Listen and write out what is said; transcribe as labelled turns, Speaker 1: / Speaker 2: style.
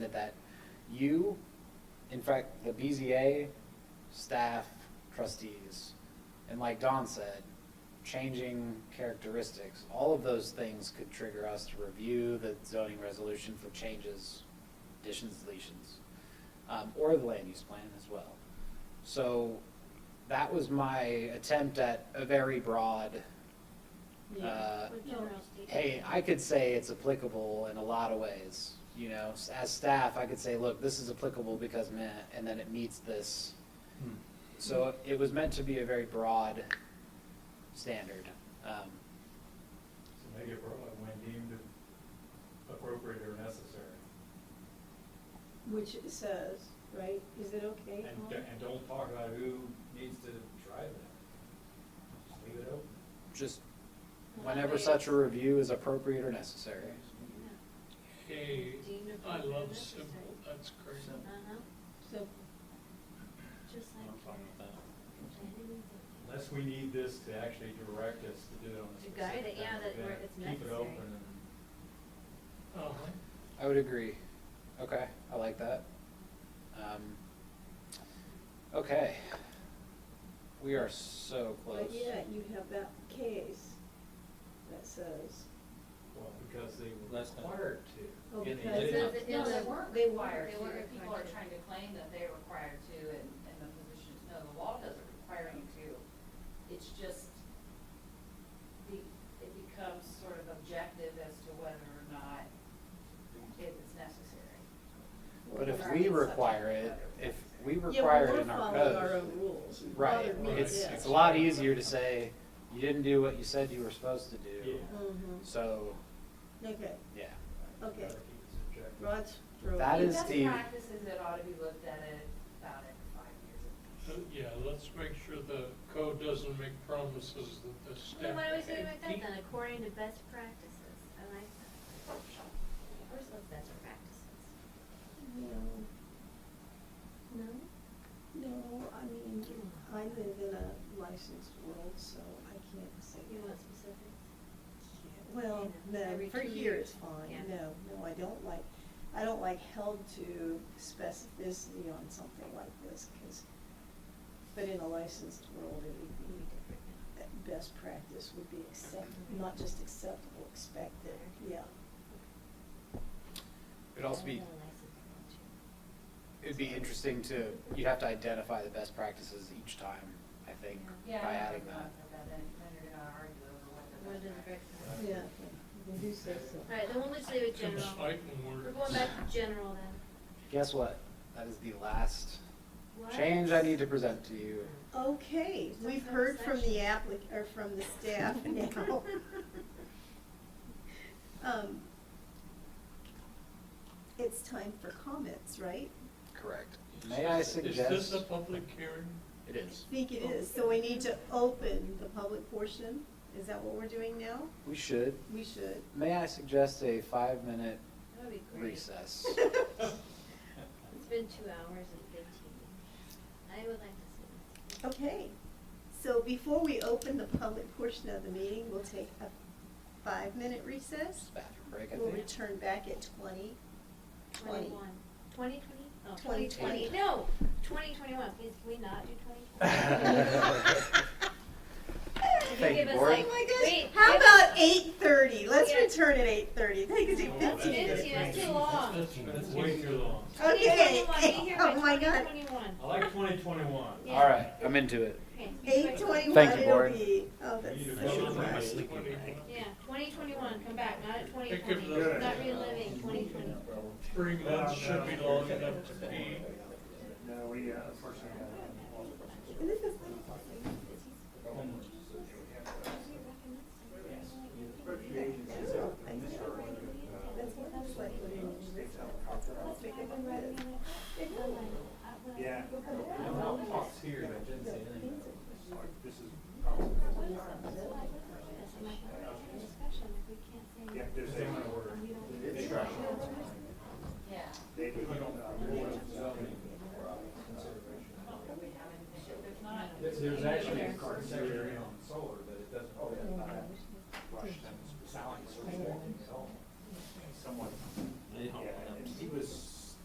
Speaker 1: that- that you, in fact, the BZA, staff, trustees, and like Don said, changing characteristics, all of those things could trigger us to review the zoning resolution for changes, additions, deletions, um, or the land use plan as well. So that was my attempt at a very broad, uh,
Speaker 2: With general statements.
Speaker 1: hey, I could say it's applicable in a lot of ways, you know, S- as staff, I could say, look, this is applicable because meh, and then it meets this.
Speaker 3: Hmm.
Speaker 1: So it was meant to be a very broad standard. Um,
Speaker 3: So make it broad when deemed appropriate or necessary.
Speaker 4: Which it says, right, is it okay?
Speaker 3: And,
Speaker 4: Colin?
Speaker 3: d- and don't talk about who needs to drive that. Just leave it open.
Speaker 1: Just whenever such a review is appropriate or necessary.
Speaker 5: Hey,
Speaker 2: Deemed
Speaker 5: I
Speaker 2: appropriate
Speaker 5: love
Speaker 2: necessary.
Speaker 5: simple, that's great.
Speaker 2: Uh-huh,
Speaker 4: So,
Speaker 2: just
Speaker 3: I'm fine
Speaker 2: like.
Speaker 3: with that. Unless we need this to actually direct us to do it on a
Speaker 2: To guide
Speaker 3: specific
Speaker 2: it, yeah,
Speaker 3: kind of
Speaker 2: that where
Speaker 3: event,
Speaker 2: it's
Speaker 3: Keep it
Speaker 2: necessary.
Speaker 3: open and.
Speaker 5: Uh-huh.
Speaker 1: I would agree. Okay, I like that. Um, Okay. We are so close.
Speaker 4: but yet you have that case that says,
Speaker 3: Well, because they were
Speaker 6: Last time.
Speaker 3: required to.
Speaker 4: Oh,
Speaker 3: and they
Speaker 4: because
Speaker 3: didn't.
Speaker 4: Yeah.
Speaker 7: Because it- No, they weren't
Speaker 4: They
Speaker 7: required
Speaker 4: were.
Speaker 7: to, if people are
Speaker 2: They were.
Speaker 7: trying to claim that they're required to, and, and the position, no, the law doesn't require you to. It's just, the, it becomes sort of objective as to whether or not it is necessary.
Speaker 1: But if
Speaker 7: Or
Speaker 1: we
Speaker 7: it's subject
Speaker 1: require
Speaker 7: to
Speaker 1: it,
Speaker 7: other
Speaker 1: if
Speaker 7: rules.
Speaker 1: we
Speaker 4: yeah, well,
Speaker 1: require it
Speaker 4: we're
Speaker 1: in our
Speaker 4: following our
Speaker 1: code.
Speaker 4: own rules. It
Speaker 1: Right,
Speaker 4: bothered me,
Speaker 1: it's,
Speaker 4: yeah.
Speaker 1: it's a lot easier to say, you didn't do what you said you were supposed to do.
Speaker 3: Yeah.
Speaker 4: Mhm.
Speaker 1: So,
Speaker 4: Okay,
Speaker 1: yeah,
Speaker 4: Okay.
Speaker 3: Gotta keep it subjective.
Speaker 4: Rod's throwing.
Speaker 1: That
Speaker 7: The
Speaker 1: is
Speaker 7: best
Speaker 1: the-
Speaker 7: practices that ought to be looked at it about every five years.
Speaker 5: So, Uh, yeah, let's make sure the code doesn't make promises that the staff.
Speaker 2: Then why do we say it like that
Speaker 5: can't
Speaker 2: then,
Speaker 5: keep.
Speaker 2: according to best practices, I like that. Where's those best practices?
Speaker 4: No.
Speaker 2: No?
Speaker 4: No, I mean, I live in a licensed world, so I can't say.
Speaker 2: You want specifics?
Speaker 4: Well,
Speaker 2: You know,
Speaker 4: no,
Speaker 2: every
Speaker 4: for
Speaker 2: two
Speaker 4: here
Speaker 2: years.
Speaker 4: is fine,
Speaker 2: Yeah.
Speaker 4: no, no, I don't like, I don't like held to specificity on something like this, cause, but in a licensed world, it would
Speaker 2: Be
Speaker 4: be,
Speaker 2: different now.
Speaker 4: that best practice would be accept, not just acceptable, expected, yeah.
Speaker 1: it'd also be,
Speaker 2: I don't know, license, don't
Speaker 1: it'd be interesting to, you'd have to identify the best practices each time, I think, by
Speaker 7: Yeah, I know,
Speaker 1: adding
Speaker 7: we're
Speaker 1: that.
Speaker 7: not about that, and then you're gonna argue over what the.
Speaker 2: you? What
Speaker 7: best
Speaker 2: is
Speaker 7: practice
Speaker 2: recommended?
Speaker 4: Yeah, we do say so.
Speaker 2: All right, then we'll just leave it
Speaker 5: Some
Speaker 2: general.
Speaker 5: fighting words.
Speaker 2: We're going back to general then.
Speaker 1: Guess what? That is the last
Speaker 2: What?
Speaker 1: change I need to present to you.
Speaker 4: Okay,
Speaker 2: Some
Speaker 4: we've
Speaker 2: kind of
Speaker 4: heard from the
Speaker 2: section.
Speaker 4: applic, or from the staff now. Um, It's time for comments, right?
Speaker 1: Correct. May I
Speaker 5: Is this-
Speaker 1: suggest?
Speaker 5: Is this a public hearing?
Speaker 1: It is.
Speaker 4: I think it is, so we need to open the public portion, is that what we're doing now?
Speaker 1: We should.
Speaker 4: We should.
Speaker 1: May I suggest a five-minute
Speaker 2: That would be great.
Speaker 1: recess?
Speaker 2: It's been two hours and fifteen. I would like to see this.
Speaker 4: Okay, so before we open the public portion of the meeting, we'll take a five-minute recess.
Speaker 1: Bathroom break, I
Speaker 4: We'll
Speaker 1: think.
Speaker 4: return back at twenty. Twenty.
Speaker 2: Twenty-one. Twenty twenty? Oh,
Speaker 4: Twenty twenty.
Speaker 2: twenty twenty, no, twenty twenty-one, please, can we not do twenty
Speaker 1: Thank
Speaker 2: twenty?
Speaker 1: you, board.
Speaker 4: Oh my gosh, how about eight thirty? Let's
Speaker 2: Yeah.
Speaker 4: return at eight thirty, that gives you
Speaker 3: Oh,
Speaker 2: That's
Speaker 3: that's
Speaker 4: fifteen
Speaker 2: too, that's
Speaker 3: great.
Speaker 2: too long.
Speaker 5: That's, that's way too long.
Speaker 4: Okay.
Speaker 2: Twenty twenty-one, be here
Speaker 4: Oh, my
Speaker 2: by
Speaker 4: God.
Speaker 2: twenty twenty-one.
Speaker 3: I like twenty twenty-one.
Speaker 2: Yeah.
Speaker 1: All right, I'm into it.
Speaker 4: Eight twenty-one
Speaker 1: Thank you,
Speaker 4: it'll
Speaker 1: board.
Speaker 4: be, oh, that's
Speaker 3: We need to
Speaker 4: so
Speaker 3: vote on
Speaker 4: fast.
Speaker 3: this.
Speaker 2: Yeah, twenty twenty-one, come back, not at twenty
Speaker 5: Pick up
Speaker 2: twenty,
Speaker 5: the-
Speaker 2: not reliving twenty twenty.
Speaker 5: Three months should be long enough to be,
Speaker 8: No, we, uh, unfortunately, uh,
Speaker 4: And this is- that's what it's like when you Let's make it look good.
Speaker 8: yeah.
Speaker 3: No, Fox here, but didn't say anything.
Speaker 8: Like, This is,
Speaker 2: Discussion, if we can't say.
Speaker 8: yeah, there's
Speaker 3: They wanna order.
Speaker 8: Instruction.